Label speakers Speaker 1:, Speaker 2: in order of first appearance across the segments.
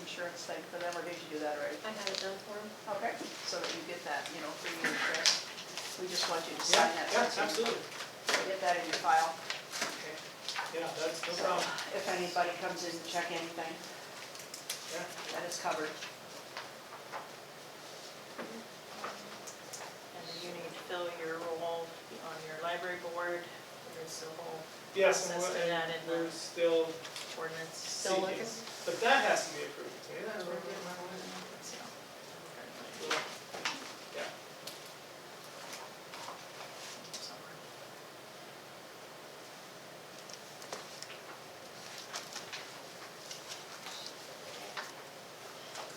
Speaker 1: insurance thing for them, or did you do that already?
Speaker 2: I had it done for him.
Speaker 1: Okay, so that you get that, you know, for your address. We just want you to sign that.
Speaker 3: Yeah,
Speaker 1: so you
Speaker 3: absolutely.
Speaker 1: Get that in your file.
Speaker 3: Yeah, that's no
Speaker 1: So
Speaker 3: problem.
Speaker 1: If anybody comes in to check anything,
Speaker 3: Yeah.
Speaker 1: that is covered.
Speaker 4: And then you need to fill your role on your library board, there's a whole
Speaker 3: Yes, and we're,
Speaker 4: Process to
Speaker 3: and
Speaker 4: that in
Speaker 3: we're
Speaker 4: the-
Speaker 3: still
Speaker 4: ordinance.
Speaker 2: Still
Speaker 3: seeking.
Speaker 2: looking?
Speaker 3: But that has to be approved, see, that's where we're-
Speaker 4: So,
Speaker 3: yeah.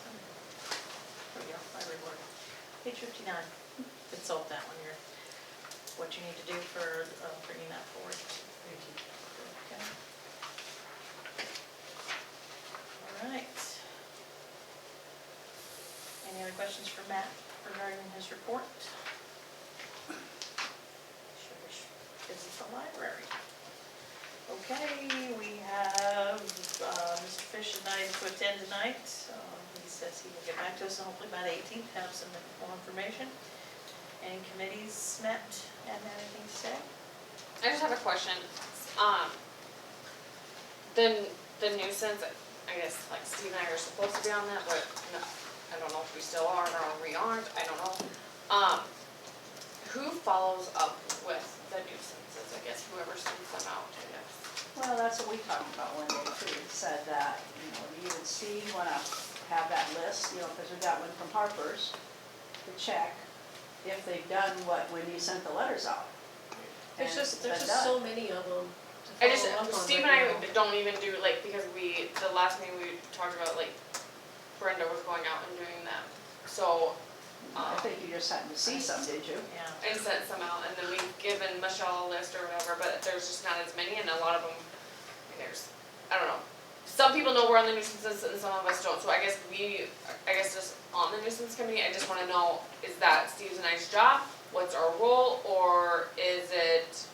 Speaker 4: There we go, library board. Page fifty-nine, consult that one, your, what you need to do for uh, bringing that forward.
Speaker 3: Thank you.
Speaker 4: Okay. All right. Any other questions for Matt regarding his report? Sure wish This is the library. Okay, we have uh, Mr. Fish and I to attend tonight. Um, He says he will get back to us and hopefully by the 18th have some more information. Any committees met and anything to say?
Speaker 5: I just have a question. Um, the, the nuisance, I guess, like Steve and I are supposed to be on that, but no, I don't know if we still are or we aren't, I don't know. Um, who follows up with the nuisances? I guess whoever sends them out, I guess.
Speaker 1: Well, that's what we talked about one day too, We said that, you know, you and Steve wanna have that list, you know, because we got one from Harper's to check if they've done what, when you sent the letters out.
Speaker 2: There's
Speaker 1: And
Speaker 2: just, there's
Speaker 1: been
Speaker 2: just so
Speaker 1: done.
Speaker 2: many of them to
Speaker 5: I just,
Speaker 2: follow up on
Speaker 5: Steve and
Speaker 2: right
Speaker 5: I
Speaker 2: now.
Speaker 5: don't even do, like, because we, the last thing we talked about, like, Brenda was going out and doing them. So,
Speaker 1: I
Speaker 5: um,
Speaker 1: think you just happened to see some, did you?
Speaker 4: Yeah.
Speaker 5: and sent some out, and then we've given Michelle a list or whatever, but there's just not as many, and a lot of them, I mean, there's, I don't know. Some people know we're on the nuisances and some of us don't, so I guess we, I guess just on the nuisance committee, I just wanna know, is that Steve's and I's job? What's our role, or is it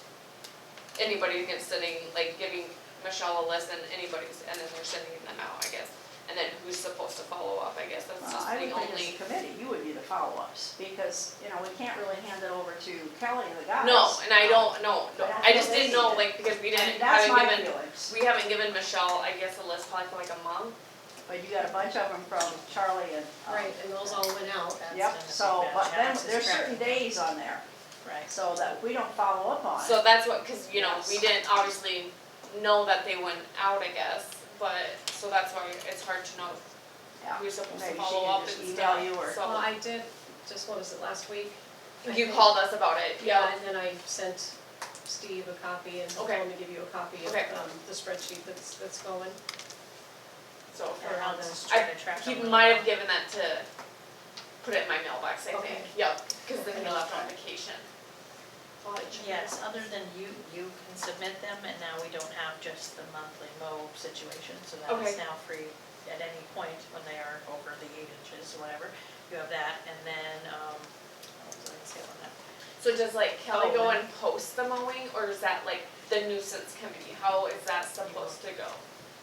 Speaker 5: anybody that's sending, like giving Michelle a list and anybody's, and then they're sending them out, I guess? And then who's supposed to follow up, I guess, that's
Speaker 1: Well,
Speaker 5: just
Speaker 1: Uh, I
Speaker 5: the
Speaker 1: would think as
Speaker 5: only,
Speaker 1: a committee, you would be the follow-ups, because, you know, we can't really hand it over to Kelly and the guys.
Speaker 5: no, and I don't, no, no,
Speaker 1: But I
Speaker 5: I just
Speaker 1: feel
Speaker 5: didn't
Speaker 1: they
Speaker 5: know,
Speaker 1: need
Speaker 5: like, because
Speaker 1: I
Speaker 5: we
Speaker 1: mean,
Speaker 5: didn't,
Speaker 1: that's
Speaker 5: haven't
Speaker 1: my
Speaker 5: given
Speaker 1: feelings,
Speaker 5: We haven't given Michelle, I guess, a list probably for like a month.
Speaker 1: but you got a bunch of them from Charlie and. um,
Speaker 2: Right, and those all went out.
Speaker 4: That's
Speaker 1: Yep,
Speaker 4: gonna be
Speaker 1: so,
Speaker 4: bad.
Speaker 1: but then,
Speaker 4: Alex is
Speaker 1: there's certain
Speaker 4: correct.
Speaker 1: days on there,
Speaker 4: Right,
Speaker 1: so that we don't follow up on.
Speaker 5: So that's what, cause you know, we
Speaker 1: Yes.
Speaker 5: didn't obviously know that they went out, I guess, but, so that's why it's hard to know
Speaker 1: Yeah.
Speaker 5: who's supposed to
Speaker 1: Maybe she
Speaker 5: follow
Speaker 1: can
Speaker 5: up and
Speaker 1: just
Speaker 5: stuff.
Speaker 1: email you or-
Speaker 5: So-
Speaker 2: Well, I did, just what was it, last week? I
Speaker 5: You
Speaker 2: think.
Speaker 5: called us about it,
Speaker 2: Yeah,
Speaker 5: yeah,
Speaker 2: and then I sent Steve a copy and told
Speaker 5: Okay.
Speaker 2: him to give you a copy of
Speaker 5: Okay.
Speaker 2: um, the spreadsheet that's, that's going.
Speaker 5: so.
Speaker 2: Or how the-
Speaker 4: Just trying to track
Speaker 5: He
Speaker 4: them.
Speaker 5: might have given that to, put it in my mailbox, I think,
Speaker 2: Okay.
Speaker 5: yep, cause then he left on vacation. Well, it should be-
Speaker 4: Yes, other than you, you can submit them, and now we don't have just the monthly mow situation, so that is
Speaker 5: Okay.
Speaker 4: now free at any point when they are over the eight inches, whatever, you have that, and then, um, what was I gonna say on that?
Speaker 5: So does like Kelly
Speaker 4: Oh,
Speaker 5: go
Speaker 4: then-
Speaker 5: and post the mowing, or is that like the nuisance committee, how is that supposed to go?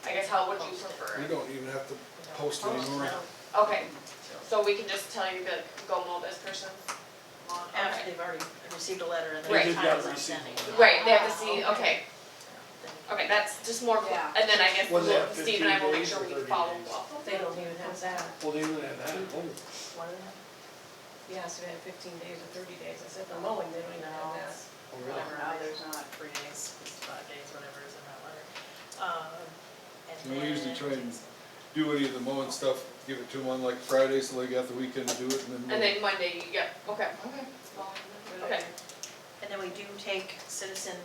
Speaker 5: I guess how would you
Speaker 4: Post it.
Speaker 5: prefer?
Speaker 6: We don't even have to
Speaker 4: We don't
Speaker 6: post
Speaker 4: post,
Speaker 6: anymore.
Speaker 4: no.
Speaker 5: Okay,
Speaker 4: So,
Speaker 5: so we can just tell you, be like, go mow this person?
Speaker 4: After
Speaker 5: Okay.
Speaker 4: they've already received a letter and their
Speaker 5: Right.
Speaker 6: They've got
Speaker 4: times are
Speaker 6: received
Speaker 4: sending.
Speaker 6: one.
Speaker 5: Right, they have to see,
Speaker 1: Ah,
Speaker 5: Oh, okay, okay, that's just more, cl-
Speaker 1: Yeah.
Speaker 5: and then I guess
Speaker 6: Was
Speaker 5: we'll-
Speaker 6: that
Speaker 5: Steve and I will make
Speaker 6: 15
Speaker 5: sure we
Speaker 6: days or 30
Speaker 5: follow
Speaker 6: days?
Speaker 5: up.
Speaker 2: They don't even have that.
Speaker 6: Well, they even have that.
Speaker 4: One of them,
Speaker 2: Yeah, so they have fifteen days or thirty days. I said the mowing, they don't even have
Speaker 4: No.
Speaker 2: that.
Speaker 6: Oh, really?
Speaker 4: whatever,
Speaker 1: No,
Speaker 4: it is,
Speaker 1: there's not.
Speaker 4: three days, five days, whatever is in that letter. Um, and
Speaker 6: And we usually
Speaker 4: then-
Speaker 6: try and do any of the mowing stuff, give it to them on like Friday, so they got the weekend to do it,
Speaker 5: And
Speaker 6: and then
Speaker 5: then Monday, you- yeah, okay. Okay.
Speaker 4: And then we do take citizen,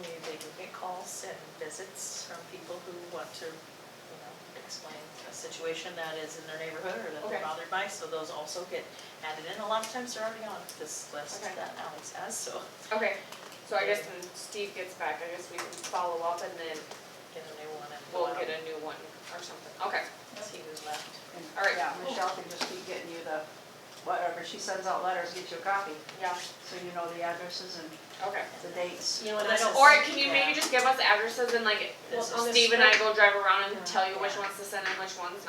Speaker 4: we, they do get calls and visits from people who want to, you know, explain a situation that is in their neighborhood or that they're
Speaker 5: Okay.
Speaker 4: bothered by, so those also get added in. A lot of times they're already on this list
Speaker 5: Okay.
Speaker 4: that Alex has, so
Speaker 5: Okay, so I guess when Steve gets back, I guess we can follow up and then
Speaker 4: get a new one and go
Speaker 5: we'll
Speaker 4: out
Speaker 5: get
Speaker 4: and
Speaker 5: a new one or something, okay.
Speaker 4: see who's left.
Speaker 1: And,
Speaker 5: All right.
Speaker 1: Yeah, Michelle can just keep getting you the, whatever, she sends out letters, get you a copy,
Speaker 5: Yeah,
Speaker 1: so you know the addresses and
Speaker 5: okay.
Speaker 1: the dates.
Speaker 2: You know, and I
Speaker 4: This
Speaker 2: don't.
Speaker 4: is-
Speaker 5: Or can you maybe
Speaker 4: Yeah.
Speaker 5: just give us the addresses and like,
Speaker 4: This
Speaker 2: Well, on this
Speaker 4: is-
Speaker 5: Steve and I
Speaker 2: spread-
Speaker 5: go drive around and
Speaker 4: Yeah.
Speaker 5: tell you which
Speaker 4: Yeah.
Speaker 5: ones to send and which ones